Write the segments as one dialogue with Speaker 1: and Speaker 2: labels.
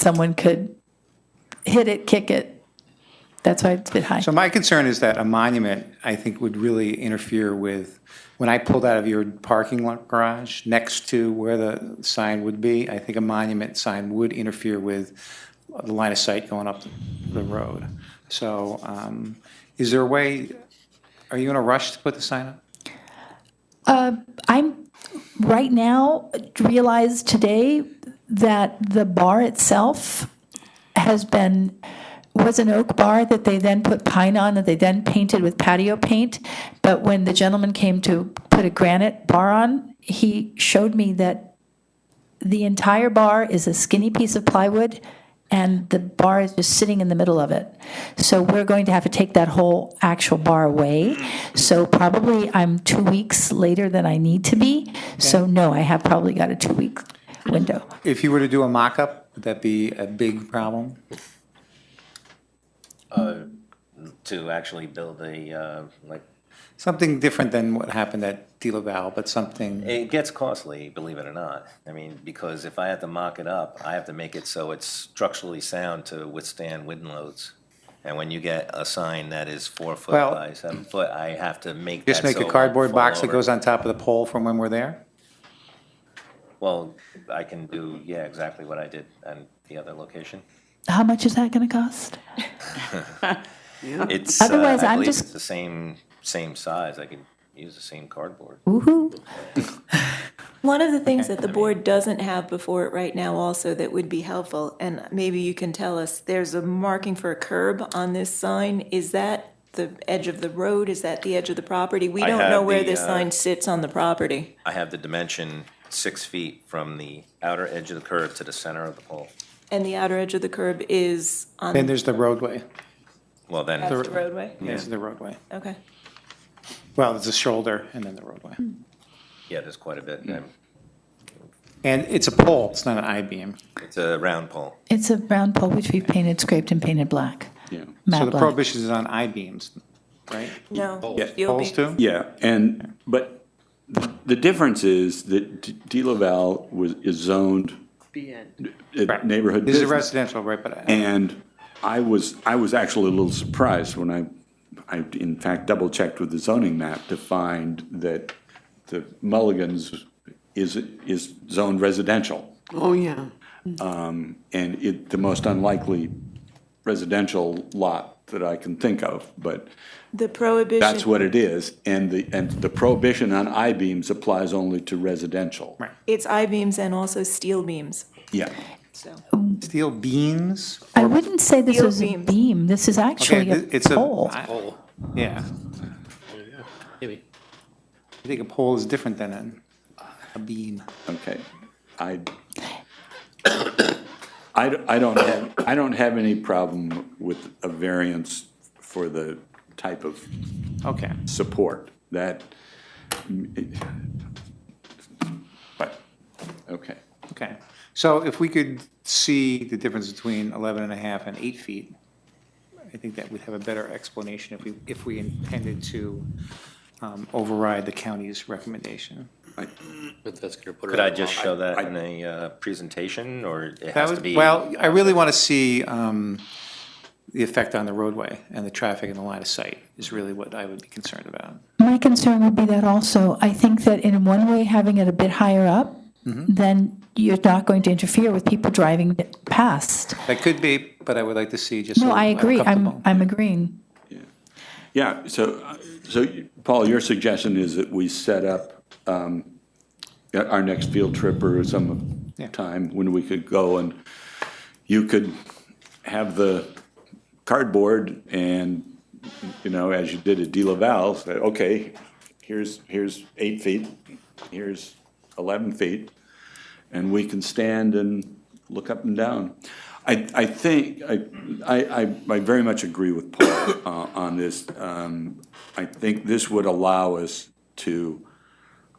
Speaker 1: someone could hit it, kick it. That's why it's a bit high.
Speaker 2: So my concern is that a monument, I think, would really interfere with, when I pulled out of your parking lot garage next to where the sign would be, I think a monument sign would interfere with the line of sight going up the road. So um, is there a way, are you in a rush to put the sign up?
Speaker 1: I'm right now realized today that the bar itself has been was an oak bar that they then put pine on that they then painted with patio paint. But when the gentleman came to put a granite bar on, he showed me that the entire bar is a skinny piece of plywood and the bar is just sitting in the middle of it. So we're going to have to take that whole actual bar away. So probably I'm two weeks later than I need to be. So no, I have probably got a two week window.
Speaker 2: If you were to do a mock-up, would that be a big problem?
Speaker 3: to actually build a, uh, like,
Speaker 2: Something different than what happened at De La Val, but something,
Speaker 3: it gets costly, believe it or not. I mean, because if I have to mock it up, I have to make it so it's structurally sound to withstand wind loads. And when you get a sign that is four foot
Speaker 2: Well-
Speaker 3: by seven foot, I have to make that
Speaker 2: just make
Speaker 3: so it
Speaker 2: a
Speaker 3: won't
Speaker 2: cardboard box
Speaker 3: fall
Speaker 2: that
Speaker 3: over.
Speaker 2: goes on top of the pole from when we're there?
Speaker 3: Well, I can do, yeah, exactly what I did on the other location.
Speaker 1: How much is that going to cost?
Speaker 3: It's, uh,
Speaker 1: Otherwise,
Speaker 3: I
Speaker 1: I'm
Speaker 3: believe
Speaker 1: just-
Speaker 3: it's the same, same size. I can use the same cardboard.
Speaker 1: Woohoo.
Speaker 4: One of the things that the board doesn't have before it right now also that would be helpful, and maybe you can tell us, there's a marking for a curb on this sign. Is that the edge of the road? Is that the edge of the property? We
Speaker 3: I
Speaker 4: don't know
Speaker 3: have
Speaker 4: where
Speaker 3: the,
Speaker 4: this
Speaker 3: uh,
Speaker 4: sign sits on the property.
Speaker 3: I have the dimension six feet from the outer edge of the curve to the center of the pole.
Speaker 4: And the outer edge of the curb is on
Speaker 2: Then there's the roadway.
Speaker 3: Well, then.
Speaker 4: the roadway?
Speaker 2: This is the roadway.
Speaker 4: Okay.
Speaker 2: Well, it's a shoulder and then the roadway.
Speaker 1: Mm.
Speaker 3: Yeah, there's quite a
Speaker 2: Hmm.
Speaker 3: bit. Um,
Speaker 2: And it's a pole, it's not an I-beam.
Speaker 3: It's a round pole.
Speaker 1: It's a round pole which we've painted, scraped, and painted black. Yeah.
Speaker 2: So
Speaker 1: Matte
Speaker 2: the
Speaker 1: black.
Speaker 2: prohibition is on I-beams, right?
Speaker 4: No.
Speaker 5: Yeah,
Speaker 4: you'll
Speaker 2: Poles
Speaker 4: be-
Speaker 2: too?
Speaker 5: Yeah, and, but the difference is that D- De La Val was, is zoned uh,
Speaker 2: Right.
Speaker 5: neighborhood
Speaker 2: This is
Speaker 5: business.
Speaker 2: residential, right, but uh, I-
Speaker 5: And I was, I was actually a little surprised when I, I in fact double-checked with the zoning map to find that the Mulligan's is, is zoned residential.
Speaker 6: Oh, yeah.
Speaker 5: And it, the most unlikely residential lot that I can think of, but
Speaker 4: The prohibition.
Speaker 5: that's what it is. And the, and the prohibition on I-beams applies only to residential.
Speaker 2: Right.
Speaker 4: It's I-beams and also steel beams,
Speaker 5: Yeah.
Speaker 4: so.
Speaker 2: steel beams?
Speaker 1: I wouldn't say this
Speaker 4: Steel
Speaker 1: is a
Speaker 4: beams.
Speaker 1: beam. This is
Speaker 2: Okay,
Speaker 1: actually
Speaker 2: th-
Speaker 1: a
Speaker 2: it's a
Speaker 1: pole.
Speaker 2: I- Yeah.
Speaker 7: Maybe.
Speaker 2: I think a pole is different than an- a beam.
Speaker 5: Okay, I, I, d- I don't have, I don't have any problem with a variance for the type of
Speaker 2: Okay.
Speaker 5: support that, but, okay.
Speaker 2: Okay, so if we could see the difference between 11 and a half and eight feet, I think that would have a better explanation if we, if we intended to um, override the county's recommendation.
Speaker 7: But that's gonna put her
Speaker 3: Could I
Speaker 7: on the
Speaker 3: just
Speaker 7: wrong-
Speaker 3: show that
Speaker 5: I-
Speaker 3: in a uh, presentation, or it
Speaker 2: That
Speaker 3: has to
Speaker 2: would,
Speaker 3: be?
Speaker 2: well, I really want to see um, the effect on the roadway and the traffic and the line of sight is really what I would be concerned about.
Speaker 1: My concern would be that also, I think that in one way, having it a bit higher up,
Speaker 2: Mm-hmm.
Speaker 1: then you're not going to interfere with people driving past.
Speaker 2: That could be, but I would like to see just.
Speaker 1: No,
Speaker 2: so
Speaker 1: I agree. I'm,
Speaker 2: comfortable.
Speaker 1: I'm agreeing.
Speaker 5: Yeah, so, uh, so you- Paul, your suggestion is that we set up um, our next field trip or some
Speaker 2: Yeah.
Speaker 5: time when we could go and you could have the cardboard and, you know, as you did at De La Salle, say, okay, here's, here's eight feet, here's 11 feet, and we can stand and look up and down. I, I think, I, I, I- I very much agree with Paul uh, on this. Um, I think this would allow us to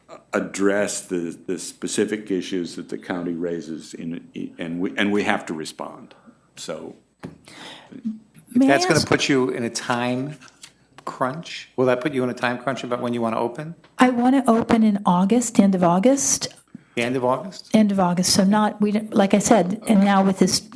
Speaker 5: uh, address the, the specific issues that the county raises in, and we, and we have to respond. So,
Speaker 1: May I
Speaker 2: That's going to
Speaker 1: ask-
Speaker 2: put you in a time crunch? Will that put you in a time crunch about when you want to open?
Speaker 1: I want to open in August, end of August,
Speaker 2: The end of August?
Speaker 1: end of August. So not, we, don't- like I said, and now with this